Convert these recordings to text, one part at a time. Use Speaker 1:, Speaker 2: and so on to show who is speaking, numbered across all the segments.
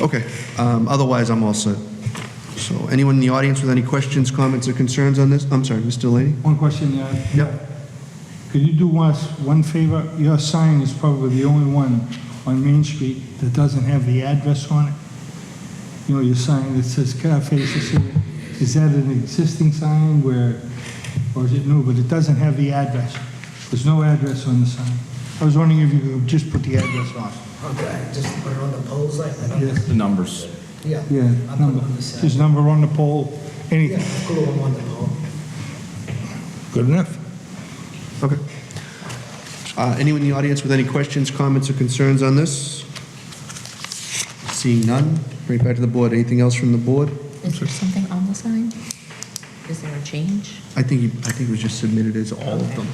Speaker 1: Okay, um, otherwise, I'm all set. So anyone in the audience with any questions, comments, or concerns on this? I'm sorry, Mr. Lady?
Speaker 2: One question, uh,
Speaker 1: Yep.
Speaker 2: could you do us one favor? Your sign is probably the only one on Main Street that doesn't have the address on it. You know, your sign that says Cafe Cecilia. Is that an existing sign where, or is it new? But it doesn't have the address. There's no address on the sign. I was wondering if you could just put the address on.
Speaker 3: Okay, just put it on the poles like that?
Speaker 2: Yes.
Speaker 4: The numbers.
Speaker 3: Yeah.
Speaker 2: Yeah,
Speaker 3: I'll put
Speaker 2: number,
Speaker 3: it on the side.
Speaker 2: just number on the pole,
Speaker 3: Yeah,
Speaker 2: anything.
Speaker 3: glue them on the pole.
Speaker 2: Good enough.
Speaker 1: Okay. Uh, Anyone in the audience with any questions, comments, or concerns on this? Seeing none, bring it back to the board. Anything else from the board?
Speaker 5: Is there something on the sign? Is there a change?
Speaker 1: I think, he- I think it was just submitted as all of them.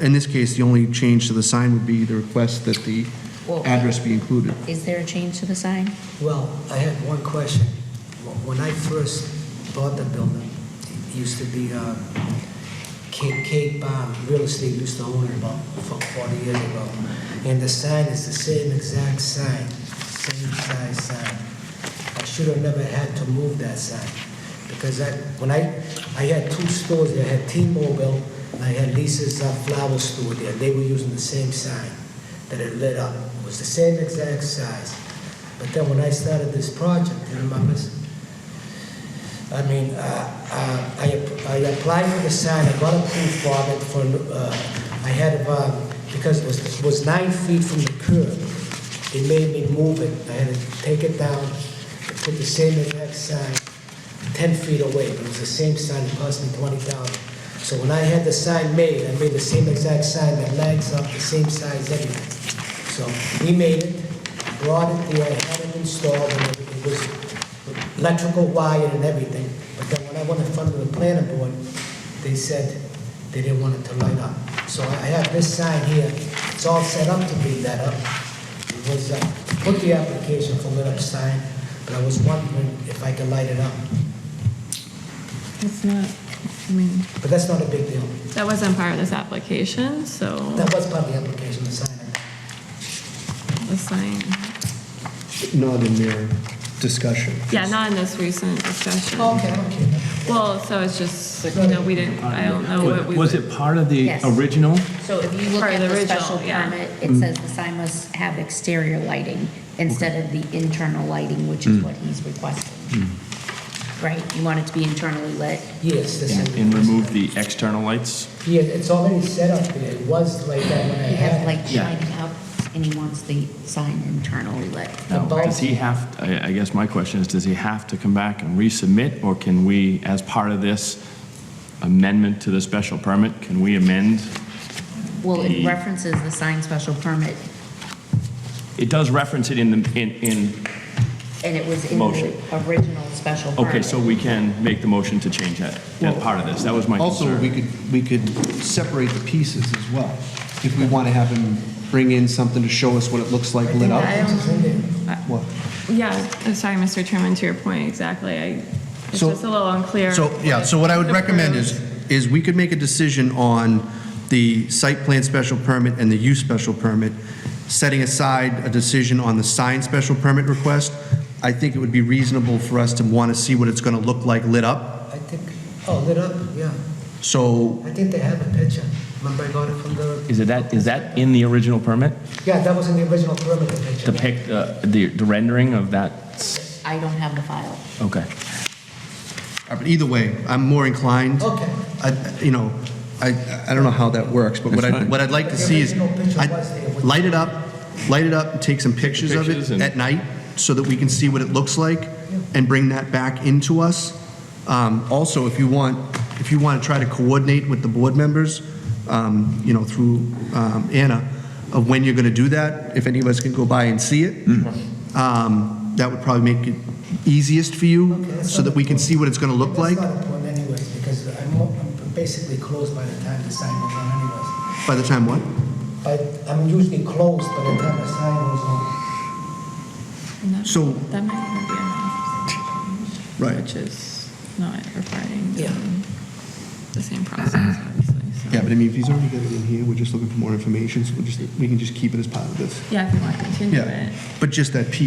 Speaker 1: In this case, the only change to the sign would be the request that the
Speaker 5: Well-
Speaker 1: address be included.
Speaker 5: Is there a change to the sign?
Speaker 3: Well, I had one question. When I first bought the building, it used to be, uh, Cape, Cape um, Real Estate used to own it about fo- 40 years ago. And the sign is the same exact sign, same size sign. I should have never had to move that sign. Because I, when I, I had two stores, there. I had T-Mobile, and I had Lisa's uh, Flower Store there. They were using the same sign that it lit up. It was the same exact size. But then when I started this project, you remember, I mean, uh, uh, I I applied for the sign, I got approved for it, for, uh, I had, uh, because it was, it was nine feet from the curb, they made me move it, I had to take it down, put the same exact sign 10 feet away, but it was the same sign, it cost me 20000 So when I had the sign made, I made the same exact sign that lights up, the same size, everything. So we made it, brought it there, had it installed, and it was electrical wire and everything. But then when I went in front of the planning board, they said they didn't want it to light up. So I have this sign here, it's all set up to be lit up. It was, uh, put the application for lit up sign, but I was wondering if I could light it up.
Speaker 6: It's not, I mean,
Speaker 3: But that's not a big deal.
Speaker 6: that wasn't part of this application, so
Speaker 3: That was part of the application, the sign.
Speaker 6: the sign,
Speaker 1: Not in their discussion.
Speaker 6: yeah, not in this recent discussion.
Speaker 3: Okay, okay.
Speaker 6: Well, so it's just, you know, we didn't, I don't know what we.
Speaker 4: Was it part of the
Speaker 5: Yes.
Speaker 4: original? Mm.
Speaker 5: So if you look
Speaker 6: Part
Speaker 5: at
Speaker 6: of the
Speaker 5: the
Speaker 6: original,
Speaker 5: special
Speaker 6: yeah.
Speaker 5: permit, it says the sign must have exterior lighting instead of the internal lighting, which
Speaker 4: Mm.
Speaker 5: is what he's requesting. Right? You want it to be internally lit?
Speaker 3: Yes, this is.
Speaker 4: And remove the external lights?
Speaker 3: Yeah, it's already set up there, it was like that when I
Speaker 5: You have
Speaker 3: had it.
Speaker 5: light
Speaker 4: Yeah.
Speaker 5: shining out and he wants the sign internally lit.
Speaker 4: Now, Does he have, I I guess my question is, does he have to come back and resubmit? Or can we, as part of this amendment to the special permit, can we amend?
Speaker 5: Well, it
Speaker 4: The-
Speaker 5: references the sign special permit
Speaker 4: It does reference it in the, in, in,
Speaker 5: and it was in
Speaker 4: Motion.
Speaker 5: the original special permit.
Speaker 4: okay, so we can make the motion to change that, that part of this. That was my
Speaker 1: Also, we
Speaker 4: concern.
Speaker 1: could, we could separate the pieces as well, if we want to have him bring in something to show us what it looks like lit
Speaker 6: I
Speaker 1: up.
Speaker 6: don't,
Speaker 1: What?
Speaker 6: yeah, I'm sorry, Mr. Chairman, to your point, exactly, I, it's
Speaker 1: So-
Speaker 6: just a little unclear.
Speaker 1: So, yeah, so what I would recommend is, is we could make a decision on the site plan special permit and the use special permit, setting aside a decision on the sign special permit request. I think it would be reasonable for us to want to see what it's going to look like lit up.
Speaker 3: I think, oh, lit up, yeah.
Speaker 1: So,
Speaker 3: I think they have a picture. Remember I got it from the,
Speaker 4: Is it that, is that in the original permit?
Speaker 3: yeah, that was in the original perimeter
Speaker 4: The
Speaker 3: picture.
Speaker 4: pic, uh, the the rendering of that?
Speaker 5: I don't have the file.
Speaker 4: Okay.
Speaker 1: uh, but either way, I'm more inclined,
Speaker 3: Okay.
Speaker 1: I- you know, I, I don't know how that works, but what I, what I'd like to see is,
Speaker 3: The original picture
Speaker 1: I'd
Speaker 3: was there with-
Speaker 1: light it up, light it up, and take some pictures of
Speaker 4: Pictures
Speaker 1: it
Speaker 4: and-
Speaker 1: at night, so that we can see what it looks like, and bring that back into us. Um, Also, if you want, if you want to try to coordinate with the board members, um, you know, through um, Anna, of when you're going to do that, if any of us can go by and see it,
Speaker 4: Mm-hmm.
Speaker 1: um, that would probably make it easiest for you,
Speaker 3: Okay, that's
Speaker 1: so that we can see what it's going to look like.
Speaker 3: That's not important anyways, because I'm, all- I'm basically closed by the time the sign was on anyways.
Speaker 1: By the time what?
Speaker 3: But I'm usually closed by the time the sign was on.
Speaker 6: No,
Speaker 1: So-
Speaker 6: That might not be enough.
Speaker 1: Right.
Speaker 6: Which is not requiring
Speaker 3: Yeah.
Speaker 6: um, the same process, obviously, so.
Speaker 1: Yeah, but I mean, if he's already got it in here, we're just looking for more information, so we'll just, we can just keep it as part of this.
Speaker 6: Yeah, if you want to continue it.
Speaker 1: But just that piece.